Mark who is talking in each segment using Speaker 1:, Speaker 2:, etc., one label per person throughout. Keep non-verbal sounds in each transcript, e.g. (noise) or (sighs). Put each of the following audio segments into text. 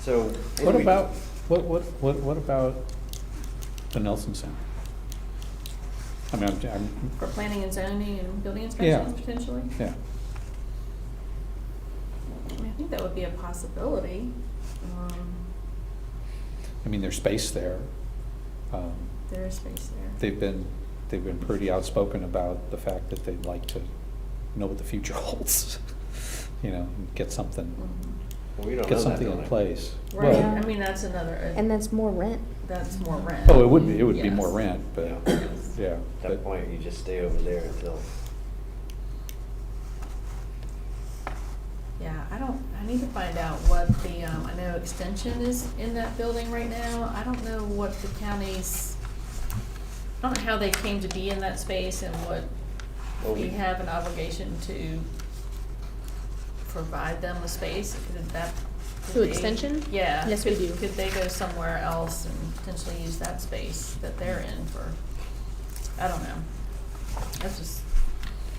Speaker 1: So. do
Speaker 2: What
Speaker 1: we-
Speaker 2: about, what, what, what, what about the Nelson Center? I mean, I'm- I'm,
Speaker 3: For planning and zoning and building inspections potentially?
Speaker 2: yeah,
Speaker 3: I mean, I think that would be a possibility. Um,
Speaker 2: I mean, there's space there. Um,
Speaker 3: There is space there.
Speaker 2: They've been, they've been pretty outspoken about the fact that they'd like to know what the future (laughs) holds, you know, and get something,
Speaker 3: Mhm.
Speaker 1: We Mm-hmm. don't know
Speaker 2: get
Speaker 1: that,
Speaker 2: something in
Speaker 1: don't we?
Speaker 2: place.
Speaker 3: Right,
Speaker 2: Well,
Speaker 3: I mean, that's another,
Speaker 4: And
Speaker 3: uh,
Speaker 4: that's more rent.
Speaker 3: that's more rent.
Speaker 2: Oh, it would be, it would be more
Speaker 3: Yes.
Speaker 2: rent, but,
Speaker 1: Yeah.
Speaker 2: yeah.
Speaker 1: At
Speaker 2: but-
Speaker 1: that point, you just stay over there until,
Speaker 3: Yeah, I don't, I need to find out what the, um, I know extension is in that building right now. I don't know what the county's, I don't know how they came to be in that space and what
Speaker 1: Well,
Speaker 3: we
Speaker 1: we-
Speaker 3: have an obligation to provide them with space. Could that? could
Speaker 5: Through
Speaker 3: they-
Speaker 5: extension?
Speaker 3: Yeah.
Speaker 5: Yes, we
Speaker 3: Could-
Speaker 5: do.
Speaker 3: Could they go somewhere else and potentially use that space that they're in for, I don't know. That's just,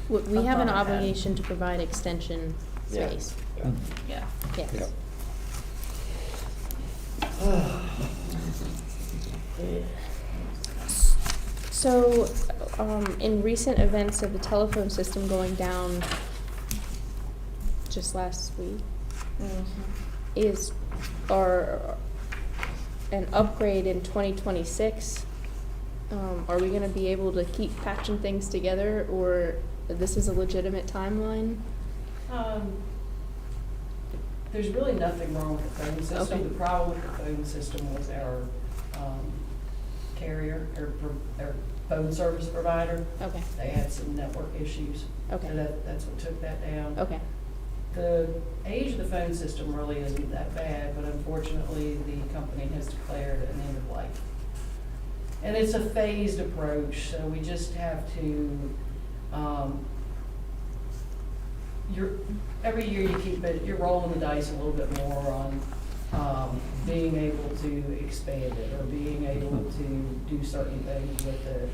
Speaker 5: We- We
Speaker 3: I
Speaker 5: have an
Speaker 3: thought I had.
Speaker 5: obligation to provide extension
Speaker 1: yeah.
Speaker 5: space,
Speaker 1: Yeah.
Speaker 3: yeah.
Speaker 2: Mm-hmm. Yeah.
Speaker 5: yes.
Speaker 4: So, um, in recent events of the telephone system going down just last week, is, or an upgrade in twenty twenty-six? Um, are we gonna be able to keep patching things together, or this is a legitimate timeline?
Speaker 6: Um, There's really nothing wrong with the phone
Speaker 4: Okay.
Speaker 6: system. The problem with the phone system was our um, carrier, our pro- our phone service provider.
Speaker 4: Okay,
Speaker 6: They had some network issues. So
Speaker 4: okay,
Speaker 6: that, that's what took that down.
Speaker 4: okay,
Speaker 6: The age of the phone system really isn't that bad, but unfortunately, the company has declared an end of life. And it's a phased approach, so we just have to, um, you're, every year you keep it, you're rolling the dice a little bit more on, um, being able to expand it or being able to do certain things with it,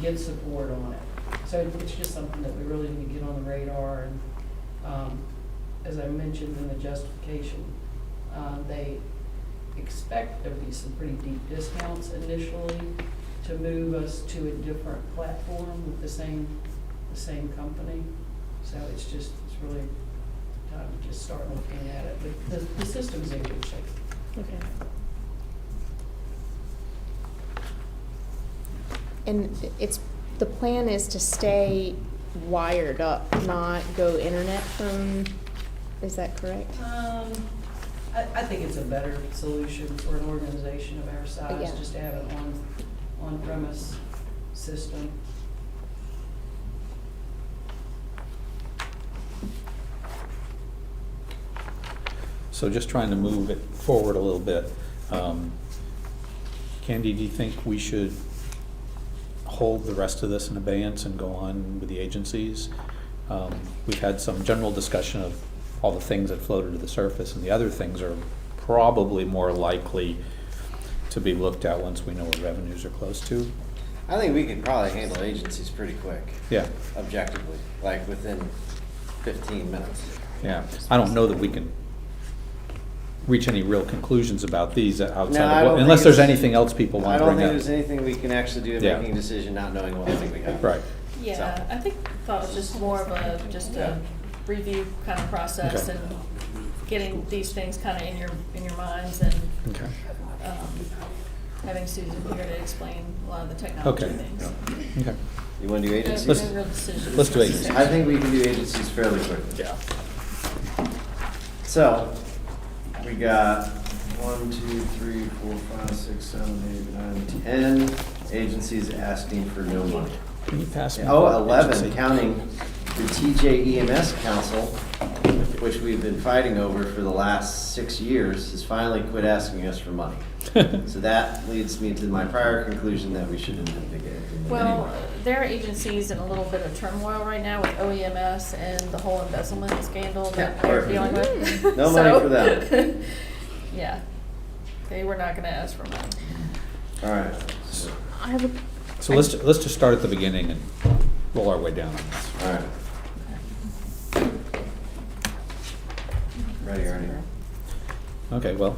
Speaker 6: get support on it. So it's just something that we really need to get on the radar and, um, as I mentioned in the justification, uh, they expect there'll be some pretty deep discounts initially to move us to a different platform with the same, the same company. So it's just, it's really time to just start looking at it, but the, the system's in good shape.
Speaker 4: okay. And it's, the plan is to stay wired up, not go internet phone, is that correct?
Speaker 6: Um, I, I think it's a better solution for an organization of our size,
Speaker 4: Yeah.
Speaker 6: just to have an on, on-premise system.
Speaker 2: So just trying to move it forward a little bit. Um, Candy, do you think we should hold the rest of this in abeyance and go on with the agencies? Um, We've had some general discussion of all the things that floated to the surface, and the other things are probably more likely to be looked at once we know what revenues are close to.
Speaker 1: (sighs) I think we could probably handle agencies pretty quick,
Speaker 2: Yeah,
Speaker 1: objectively, like within fifteen minutes.
Speaker 2: yeah. I don't know that we can reach any real conclusions about these outside
Speaker 1: No, I
Speaker 2: of,
Speaker 1: don't
Speaker 2: what- unless
Speaker 1: think
Speaker 2: there's
Speaker 1: it's-
Speaker 2: anything else people
Speaker 1: I
Speaker 2: want to
Speaker 1: don't
Speaker 2: bring up.
Speaker 1: think there's anything we can actually do in
Speaker 2: Yeah.
Speaker 1: making a decision not knowing what we think we have.
Speaker 2: Right.
Speaker 3: Yeah, I think thought it was just more of a, just
Speaker 1: Yeah.
Speaker 3: a review kind of process
Speaker 2: Okay.
Speaker 3: and getting these things kind of in your, in your minds and,
Speaker 2: Okay.
Speaker 3: um, having Susan here to explain a lot of the technology
Speaker 2: Okay.
Speaker 3: things.
Speaker 2: Okay.
Speaker 1: You wanna do agencies?
Speaker 3: No- No real decisions.
Speaker 2: let's do agencies.
Speaker 1: I think we can do agencies fairly quickly.
Speaker 2: Yeah.
Speaker 1: So, we got one, two, three, four, five, six, seven, eight, nine, ten agencies asking for no money.
Speaker 2: Can you pass me?
Speaker 1: Oh,
Speaker 2: that
Speaker 1: eleven,
Speaker 2: agency?
Speaker 1: counting the TJ EMS Council, which we've been fighting over for the last six years, has finally quit asking us for money.
Speaker 2: (laughs)
Speaker 1: So that leads me to my prior conclusion that we shouldn't investigate.
Speaker 3: Well, there are agencies in a little bit of turmoil right now with OEMS and the whole embezzlement scandal that
Speaker 1: Yeah.
Speaker 3: they're dealing with.
Speaker 1: (laughs) No money
Speaker 3: (laughs) So-
Speaker 1: for them.
Speaker 3: (laughs) Yeah, they were not gonna ask for money.
Speaker 1: All right.
Speaker 4: I have a
Speaker 2: So let's, let's just start at the beginning and roll our way down on this.
Speaker 1: All right. Ready, Ernie?
Speaker 2: Okay, well,